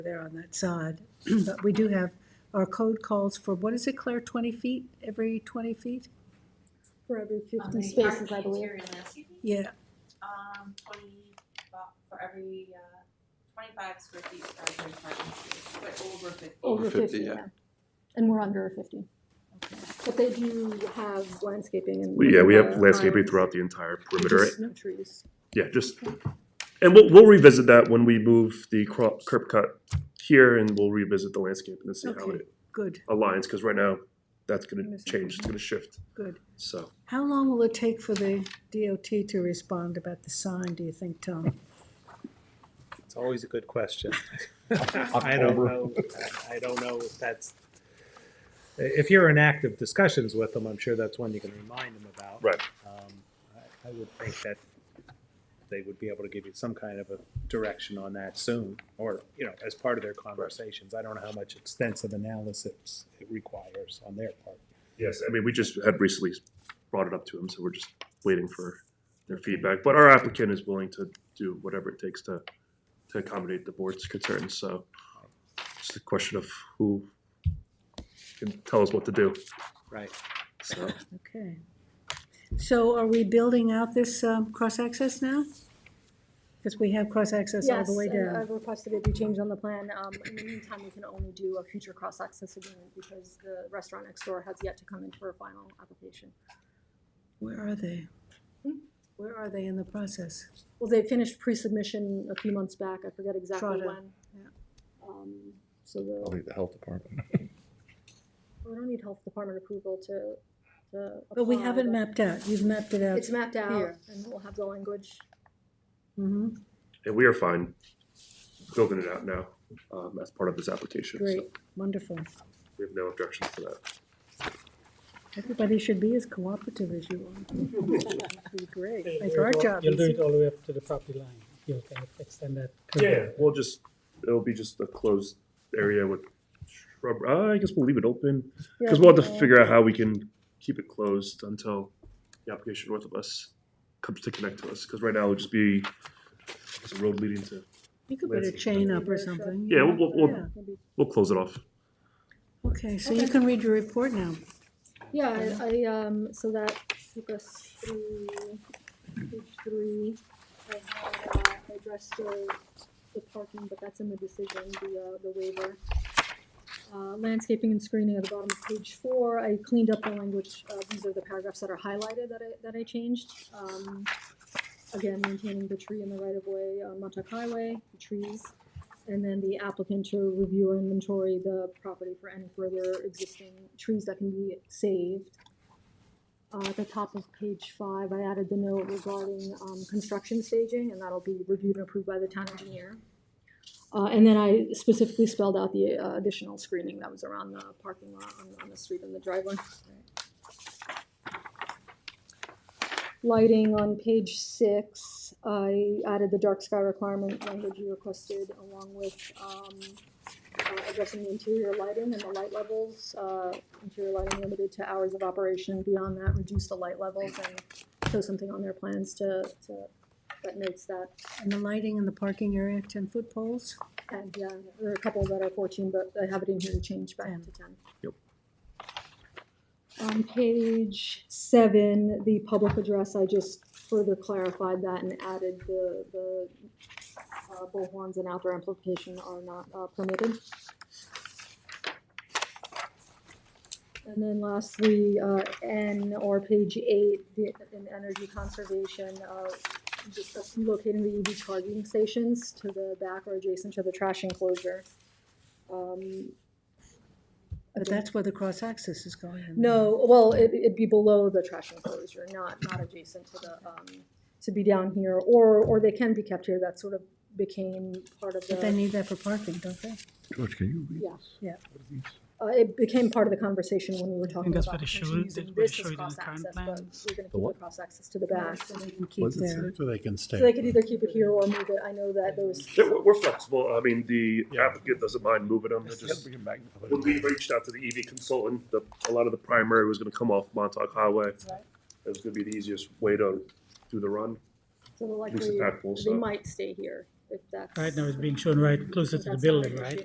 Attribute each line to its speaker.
Speaker 1: there on that side. But we do have, our code calls for, what is it, Claire, 20 feet, every 20 feet?
Speaker 2: For every
Speaker 3: Um,
Speaker 2: fifty
Speaker 3: the
Speaker 2: spaces, I
Speaker 3: arch
Speaker 2: believe.
Speaker 3: interior landscaping,
Speaker 1: Yeah,
Speaker 3: Um, twenty, well, for every, uh, twenty-five square feet for every parking space, but over fifty.
Speaker 2: Over
Speaker 4: Over 50,
Speaker 2: fifty,
Speaker 4: yeah.
Speaker 2: yeah. And we're under fifty. But they do have landscaping and.
Speaker 5: We- Yeah, we have
Speaker 2: uh,
Speaker 5: landscaping
Speaker 2: lines.
Speaker 5: throughout the entire
Speaker 2: And
Speaker 5: perimeter.
Speaker 2: just No trees.
Speaker 5: Yeah, just, and we'll, we'll revisit that when we move the cro- curb cut here and we'll revisit the landscape and see how
Speaker 1: Okay.
Speaker 5: it
Speaker 1: good,
Speaker 5: aligns, because right now, that's gonna
Speaker 1: Understand.
Speaker 5: change, it's gonna shift,
Speaker 1: good.
Speaker 5: so.
Speaker 1: How long will it take for the DOT to respond about the sign, do you think, Tom?
Speaker 6: It's always a good question. I don't know, I don't know if that's, if you're in active discussions with them, I'm sure that's one you can remind them about.
Speaker 5: Right.
Speaker 6: Um, I- I would think that they would be able to give you some kind of a direction on that soon, or, you know, as part of their conversations. I don't know how much extensive analysis it requires on their part.
Speaker 5: Yes, I mean, we just had recently brought it up to them, so we're just waiting for their feedback. But our applicant is willing to do whatever it takes to, to accommodate the board's concerns, so it's a question of who can tell us what to do,
Speaker 6: Right.
Speaker 5: so.
Speaker 1: Okay. So are we building out this um, cross-access now? Because we have cross-access all
Speaker 2: Yes, uh,
Speaker 1: the way
Speaker 2: and
Speaker 1: down.
Speaker 2: I've requested it be changed on the plan. Um, in the meantime, we can only do a future cross-access agreement because the restaurant next door has yet to come in for a final application.
Speaker 1: Where are they?
Speaker 2: Hmm?
Speaker 1: Where are they in the process?
Speaker 2: Well, they finished pre-submission a few months back. I forget exactly
Speaker 1: Trotter,
Speaker 2: when.
Speaker 1: yeah.
Speaker 2: Um, so the.
Speaker 4: Probably the health department.
Speaker 2: We don't need health department approval to, to.
Speaker 1: But we
Speaker 2: apply,
Speaker 1: haven't
Speaker 2: but
Speaker 1: mapped out, you've mapped it out.
Speaker 2: It's mapped out
Speaker 1: here.
Speaker 2: and we'll have the language.
Speaker 1: Mhm,
Speaker 5: And we are fine building it out now, um, as part of this application, so
Speaker 1: Great, wonderful.
Speaker 5: we have no objection to that.
Speaker 1: Everybody should be as cooperative as you are. That'd be great,
Speaker 7: You'll
Speaker 1: make
Speaker 7: do it
Speaker 1: our
Speaker 7: all-
Speaker 1: job
Speaker 7: You'll do
Speaker 1: easy.
Speaker 7: it all the way up to the property line. You'll kind of extend that. curve.
Speaker 5: Yeah, we'll just, it'll be just a closed area with shrub, uh, I guess we'll leave it open, because we'll have to figure out how we can keep it closed until the application north of us comes to connect to us, because right now it'll just be, it's a road leading to,
Speaker 1: You could put a chain up or something.
Speaker 5: Yeah, we'll- we'll-
Speaker 1: Yeah.
Speaker 5: we'll close it off.
Speaker 1: Okay, so you
Speaker 2: Okay.
Speaker 1: can read your report now.
Speaker 2: Yeah, I, I, um, so that took us through page three. I had, uh, I addressed the, the parking, but that's in the decision, the, uh, the waiver. Uh, landscaping and screening at the bottom of page four, I cleaned up the language, uh, these are the paragraphs that are highlighted that I, that I changed. Um, again, maintaining the tree in the right of way on Montauk Highway, the trees. And then the applicant to review or inventory the property for any further existing trees that can be saved. Uh, at the top of page five, I added the note regarding, um, construction staging, and that'll be reviewed and approved by the town engineer. Uh, and then I specifically spelled out the uh, additional screening that was around the parking lot on, on the street and the driveway. Lighting on page six, I added the dark sky requirement language you requested along with, um, uh, addressing the interior lighting and the light levels. Uh, interior lighting limited to hours of operation. Beyond that, reduce the light levels and show something on their plans to, to, that notes that.
Speaker 1: And the lighting in the parking area, ten-foot poles?
Speaker 2: And yeah, there are a couple that are fourteen, but I have it in here to change back
Speaker 1: Ten.
Speaker 2: to ten.
Speaker 5: Yep.
Speaker 2: On page seven, the public address, I just further clarified that and added the, the uh, bullhorns and outdoor amplification are not uh, permitted. And then lastly, uh, N or page eight, the, in energy conservation, uh, just us locating the EV charging stations to the back or adjacent to the trash enclosure. Um, I
Speaker 1: But
Speaker 2: think-
Speaker 1: that's where the cross-access is going. in.
Speaker 2: No, well, it, it'd be below the trash enclosure, not, not adjacent to the, um, to be down here, or, or they can be kept here, that sort of became part of
Speaker 1: But they
Speaker 2: the,
Speaker 1: need that for parking, don't they?
Speaker 4: George, can you read
Speaker 2: Yeah.
Speaker 4: this?
Speaker 1: Yeah.
Speaker 4: What are these?
Speaker 2: uh, it became part of the conversation when we were talking
Speaker 7: that's
Speaker 2: about
Speaker 7: what it
Speaker 2: potentially
Speaker 7: showed-
Speaker 2: using
Speaker 7: that's what it
Speaker 2: this
Speaker 7: showed
Speaker 2: as
Speaker 7: in the
Speaker 2: cross-access,
Speaker 7: current
Speaker 2: but we're gonna
Speaker 7: plans.
Speaker 2: keep the
Speaker 4: what?
Speaker 2: cross-access to the back.
Speaker 1: So they can keep their,
Speaker 4: So they can stay.
Speaker 2: So they could either keep it here or move it, I know that there was
Speaker 5: Yeah, we're, we're flexible, I mean, the applicant doesn't mind moving them, they're just, when we reached out to the EV consultant, the, a lot of the primary was gonna come off Montauk Highway. It was gonna be the easiest way to do the run,
Speaker 2: So they're
Speaker 5: at least
Speaker 2: likely,
Speaker 5: impactful,
Speaker 2: they
Speaker 5: so.
Speaker 2: might stay here if that's.
Speaker 7: Right now it's being shown right closer to
Speaker 2: That's
Speaker 7: the
Speaker 2: not an
Speaker 7: building, right?
Speaker 2: issue.